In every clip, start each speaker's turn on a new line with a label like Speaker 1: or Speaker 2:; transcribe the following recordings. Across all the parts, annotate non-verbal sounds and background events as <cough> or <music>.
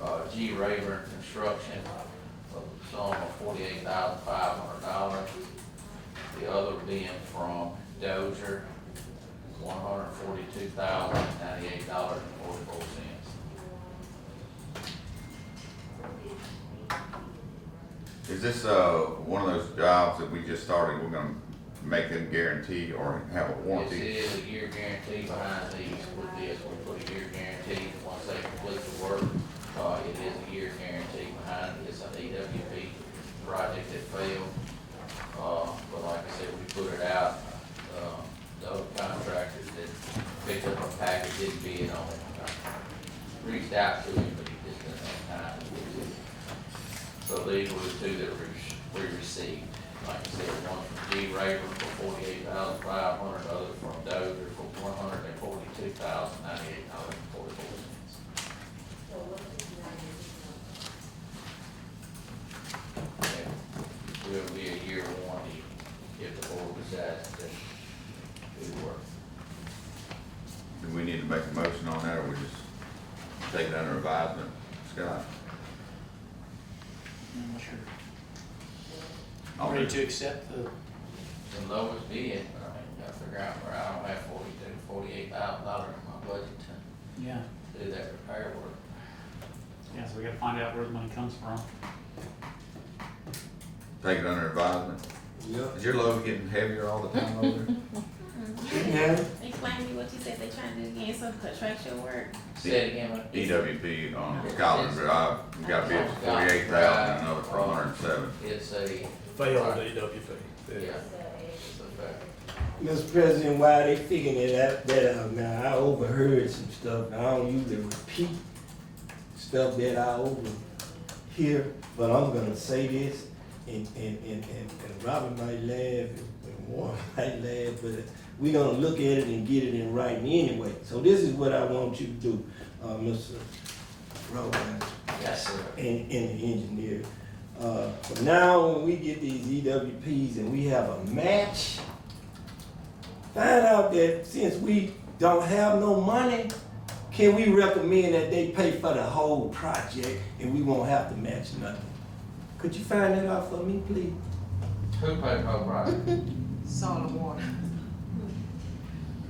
Speaker 1: uh, G Rayburn Construction uh, of the sum of forty-eight thousand five hundred dollars. The other being from Dozier, one hundred forty-two thousand ninety-eight dollars and forty-four cents.
Speaker 2: Is this, uh, one of those jobs that we just started, we're gonna make them guarantee or have a
Speaker 1: This
Speaker 2: warranty?
Speaker 1: is a year guarantee behind these, with this, we put a year guarantee, once they complete the work, uh, it is a year guarantee behind it, it's an EWP project that failed. Uh, but like I said, we put it out, uh, the other contractors that picked up a package didn't bid on it. I Reached out to him, but he just didn't have time. So these were the two that we, we received. Like I said, one from G. Raver for forty-eight thousand five hundred, other from Dozier for one hundred and forty-two thousand ninety-eight dollars and forty-four cents. Will be a year warranty if the board decides to do the work.
Speaker 2: Do we need to make a motion on that, or we just take it under advisement? Scott?
Speaker 3: I'm not sure.
Speaker 2: I'll
Speaker 3: Ready
Speaker 2: do-
Speaker 3: to accept the,
Speaker 1: The lowest bid, I mean, I figure out where I don't have forty-two, forty-eight thousand dollars in my budget
Speaker 3: yeah,
Speaker 1: to do that repair work.
Speaker 3: yeah, so we gotta find out where the money comes from.
Speaker 2: Take it under advisement?
Speaker 4: Yeah.
Speaker 2: Is your load getting heavier all the time over <laughs> there?
Speaker 4: Yeah.
Speaker 5: Explain to me what you said they trying to do again, some contractual work.
Speaker 1: Say it again, what?
Speaker 2: EWP E on Scotland Drive, we got bids for forty-eight thousand, and another for a hundred and seven.
Speaker 1: It's a,
Speaker 6: Failed EWP.
Speaker 1: yeah, it's a fact.
Speaker 4: Mr. President, while they figuring it out, that out now, I overheard some stuff. and I don't usually repeat stuff that I overhear, but I'm gonna say this, and, and, and, and, and Robert might laugh, and Warren <laughs> might laugh, but we gonna look at it and get it in writing anyway. So this is what I want you to do, uh, Mr. Rowan.
Speaker 1: Yes, sir.
Speaker 4: and, and the engineer. Uh, but now when we get these EWPs and we have a match, find out that since we don't have no money, can we recommend that they pay for the whole project and we won't have to match nothing? Could you find that out for me, please?
Speaker 1: Who paid Pope
Speaker 4: <laughs>
Speaker 1: Ryan?
Speaker 7: Salt and water.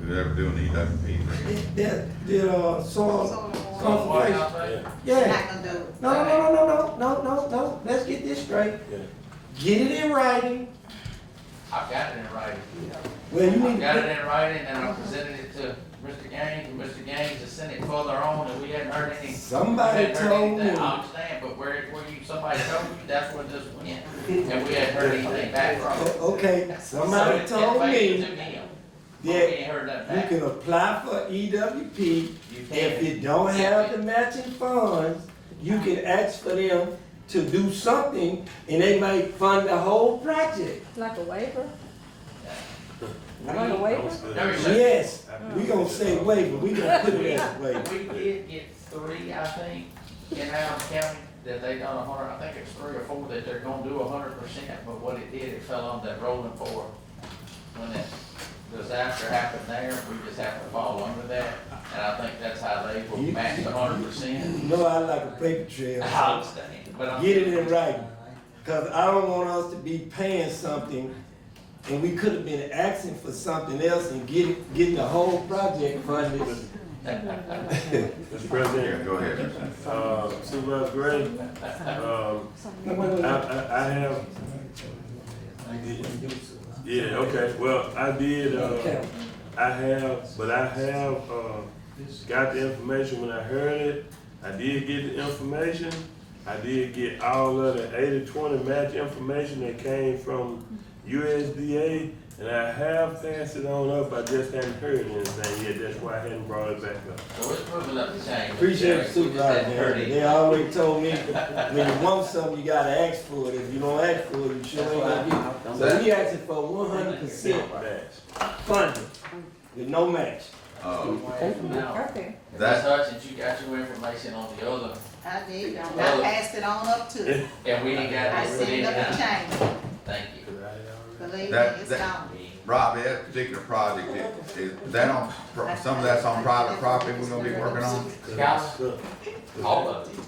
Speaker 2: Who's ever doing E EWP?
Speaker 4: That- That, that, uh,
Speaker 2: Oh.
Speaker 4: so,
Speaker 7: Salt and water.
Speaker 4: Salt and water. yeah.
Speaker 7: Not gonna do it.
Speaker 4: No, no, no, no, no, no, no, no, let's get this straight. Get it in writing.
Speaker 1: I've got it in writing.
Speaker 4: Well, you need
Speaker 1: I've
Speaker 4: to.
Speaker 1: got it in writing and I presented it to Mr. Gaines and Mr. Gaines has sent it further on and we hadn't heard any.
Speaker 4: Somebody
Speaker 1: hadn't heard
Speaker 4: told
Speaker 1: anything.
Speaker 4: me.
Speaker 1: I understand, but where, where you, somebody told you, that's where this went. And we hadn't heard anything back from it.
Speaker 4: O- Okay,
Speaker 1: So
Speaker 4: somebody
Speaker 1: it-
Speaker 4: told
Speaker 1: it failed
Speaker 4: me
Speaker 1: to him. But We
Speaker 4: that
Speaker 1: ain't heard nothing
Speaker 4: you
Speaker 1: back.
Speaker 4: can apply for EWP.
Speaker 1: You
Speaker 4: If
Speaker 1: can't.
Speaker 4: you don't have the matching funds, you can ask for them to do something and they may fund the whole project.
Speaker 8: Like a waiver?
Speaker 1: We-
Speaker 8: Like a waiver?
Speaker 1: No, it's just-
Speaker 4: Yes, we gonna say waiver, we gonna put it as a
Speaker 1: We
Speaker 4: waiver.
Speaker 1: did get three, I think, in Adams County, that they done a hundred, I think it's three or four that they're gonna do a hundred percent, but what it did, it fell on that rolling four. When that disaster happened there, we just happened to fall under that, and I think that's how they will
Speaker 4: You-
Speaker 1: match a hundred percent.
Speaker 4: You know I like a paper trail.
Speaker 1: I understand, but I'm.
Speaker 4: Get it in writing, cause I don't want us to be paying something and we could have been asking for something else and get, getting the whole project funded.
Speaker 6: Mr.
Speaker 2: Yeah,
Speaker 6: President,
Speaker 2: go ahead, Mr.
Speaker 6: uh, Supervisor Gray, um,
Speaker 4: No,
Speaker 6: I,
Speaker 4: wait, wait, wait.
Speaker 6: I, I have, yeah, okay, well, I did, uh,
Speaker 4: Okay.
Speaker 6: I have, but I have, uh, got the information when I heard it. I did get the information. I did get all of the eighty twenty match information that came from USDA, and I have passed it on up, I just hadn't heard anything yet, that's why I hadn't brought it back up.
Speaker 1: So it's proving up the change.
Speaker 4: Appreciate the
Speaker 1: We just hadn't
Speaker 4: supervisor,
Speaker 1: heard
Speaker 4: Harry.
Speaker 1: it.
Speaker 4: They already told me, when you want something, you gotta ask for it. If you don't ask for it, you sure ain't gonna get it. So we asking for one hundred percent
Speaker 6: Match.
Speaker 4: funding with no match.
Speaker 2: Uh,
Speaker 1: Now,
Speaker 8: Right there.
Speaker 1: Ms. Hutchins, you got your information on the other,
Speaker 7: I did, I passed it on up to, it.
Speaker 1: and we ain't got
Speaker 7: I
Speaker 1: it, we
Speaker 7: seen
Speaker 1: didn't
Speaker 7: nothing
Speaker 1: have it.
Speaker 7: change,
Speaker 1: Thank you.
Speaker 7: believe me,
Speaker 2: That-
Speaker 7: it's
Speaker 2: that-
Speaker 7: gone.
Speaker 2: Rob, that particular project, is- is that on, some of that's on private property we're gonna be working on?
Speaker 1: Scott, all of it.